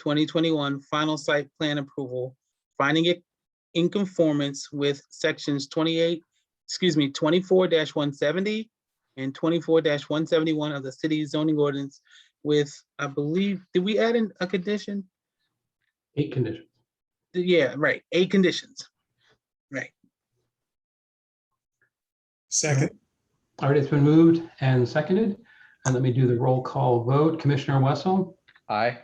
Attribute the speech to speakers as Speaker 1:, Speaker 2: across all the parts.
Speaker 1: 8850-2021 final site plan approval, finding it in conformance with sections 28, excuse me, 24-170 and 24-171 of the city zoning ordinance with, I believe, did we add in a condition?
Speaker 2: Eight conditions.
Speaker 1: Yeah, right, eight conditions.
Speaker 3: Second,
Speaker 2: All right, it's been moved and seconded. And let me do the roll call vote. Commissioner Wessel,
Speaker 4: Aye.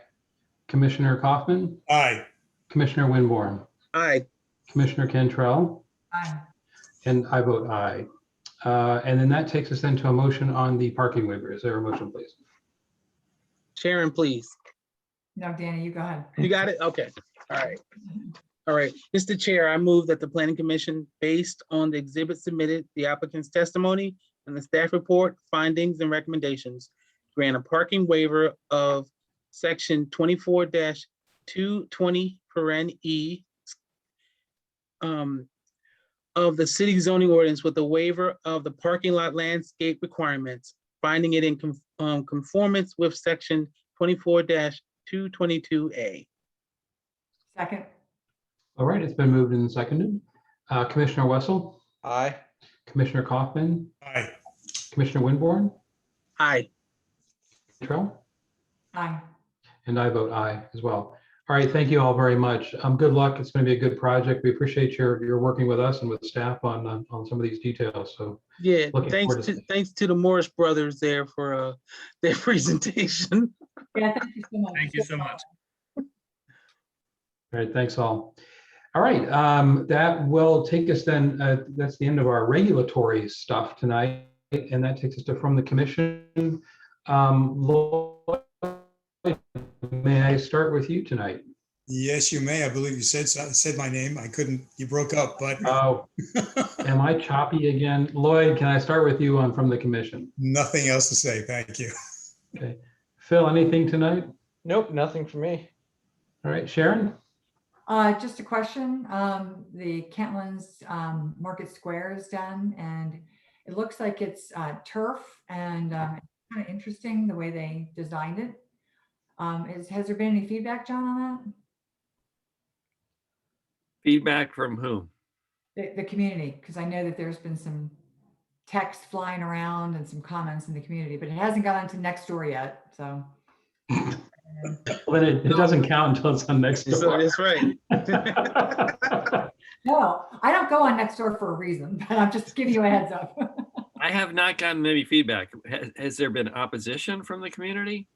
Speaker 2: Commissioner Kaufman,
Speaker 3: aye.
Speaker 2: Commissioner Winborn,
Speaker 1: Aye,
Speaker 2: Commissioner Cantrell,
Speaker 5: Aye.
Speaker 2: and I vote aye. Uh, And then that takes us then to a motion on the parking waiver. Is there a motion, please?
Speaker 1: Sharon, please.
Speaker 5: No, Danny, you go ahead.
Speaker 1: You got it? Okay, all right. All right, Mr. Chair, I move that the planning commission, based on the exhibit submitted, the applicant's testimony, and the staff report, findings and recommendations, grant a parking waiver of section twenty-four two twenty paren E um, of the city zoning ordinance with a waiver of the parking lot landscape requirements, finding it in con- um, conformance with section twenty-four two twenty-two A.
Speaker 5: Second,
Speaker 2: All right, it's been moved and seconded. Uh, Commissioner Wessel,
Speaker 4: Aye.
Speaker 2: Commissioner Kaufman,
Speaker 3: Aye.
Speaker 2: Commissioner Winborn,
Speaker 1: Aye.
Speaker 2: Cantrell?
Speaker 5: aye.
Speaker 2: And I vote aye as well. All right, thank you all very much. Um, good luck. It's going to be a good project. We appreciate your, your working with us and with staff on, uh, on some of these details. So
Speaker 1: Yeah,
Speaker 2: Looking
Speaker 1: thanks
Speaker 2: forward to
Speaker 1: to,
Speaker 2: that.
Speaker 1: thanks to the Morris Brothers there for uh, their presentation.
Speaker 5: Yeah, thank you so much.
Speaker 3: Thank you so much.
Speaker 2: All right, thanks all. All right, um, that will take us then, uh, that's the end of our regulatory stuff tonight. And that takes us to from the commission. Um, Lloyd, may I start with you tonight?
Speaker 3: Yes, you may. I believe you said, said my name. I couldn't, you broke up, but
Speaker 2: Oh, am I choppy again? Lloyd, can I start with you on from the commission?
Speaker 3: nothing else to say. Thank you.
Speaker 2: Okay. Phil, anything tonight?
Speaker 4: Nope, nothing for me.
Speaker 2: All right, Sharon?
Speaker 5: Uh, just a question, um, the Kentlands, um, Market Square is done and it looks like it's, uh, turf and, um, kind of interesting the way they designed it. Um, is, has there been any feedback, John, on
Speaker 6: Feedback from whom?
Speaker 5: that? The, the community, because I know that there's been some text flying around and some comments in the community, but it hasn't gotten to next door yet, so.
Speaker 2: Well, then it, it doesn't count until it's on next
Speaker 1: So
Speaker 2: door.
Speaker 1: that's right.
Speaker 5: No, I don't go on next door for a reason, but I'm just giving you a heads up.
Speaker 6: I have not gotten any feedback. Has, has there been opposition from the community?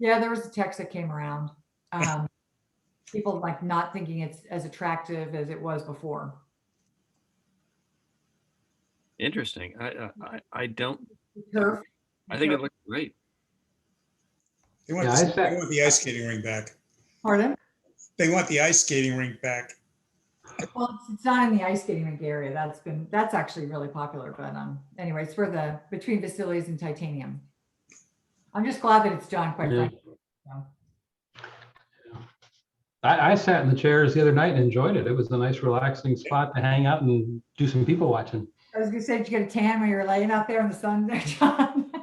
Speaker 5: Yeah, there was a text that came around. Um, people like not thinking it's as attractive as it was before.
Speaker 6: Interesting. I, I, I- I don't,
Speaker 5: Turf,
Speaker 6: I think it looks great.
Speaker 3: They want,
Speaker 2: Yeah, I said-
Speaker 3: they want the ice skating rink back.
Speaker 5: Pardon?
Speaker 3: They want the ice skating rink back.
Speaker 5: Well, it's- it's not in the ice skating rink area. That's been, that's actually really popular, but um, anyway, it's for the, between Vasili's and Titanium. I'm just glad that it's John, quite
Speaker 2: Yeah.
Speaker 5: frankly.
Speaker 2: I, I sat in the chairs the other night and enjoyed it. It was a nice relaxing spot to hang out and do some people watching.
Speaker 5: I was gonna say, did you get a tan when you were laying out there in the sun there, John?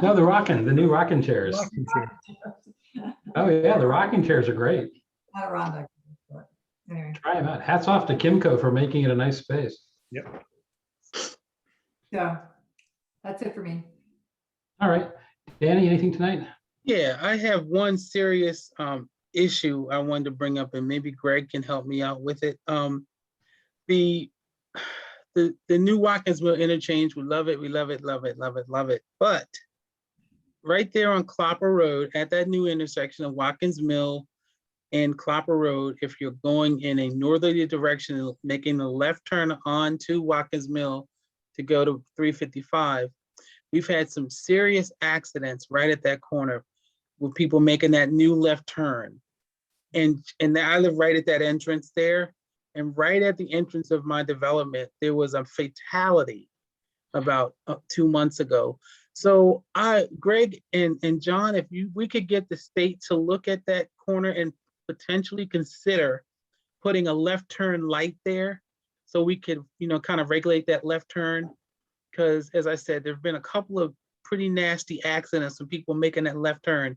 Speaker 2: No, the rocking, the new rocking chairs. Oh yeah, the rocking chairs are great.
Speaker 5: Adirondack, but Anyway,
Speaker 2: Try them out. Hats off to Kimco for making it a nice space.
Speaker 5: so that's it for me.
Speaker 2: All right, Danny, anything tonight?
Speaker 1: Yeah, I have one serious um issue I wanted to bring up and maybe Greg can help me out with it. Um the the the new Watkinsville interchange, we love it, we love it, love it, love it, love it. But right there on Clopper Road at that new intersection of Watkins Mill and Clopper Road, if you're going in a northerly direction, making the left turn onto Watkins Mill to go to 355, we've had some serious accidents right at that corner with people making that new left turn. And, and I live right at that entrance there. And right at the entrance of my development, there was a fatality about uh, two months ago. So I, Greg and, and John, if you, we could get the state to look at that corner and potentially consider putting a left turn light there so we could, you know, kind of regulate that left turn. Because as I said, there've been a couple of pretty nasty accidents, some people making that left turn.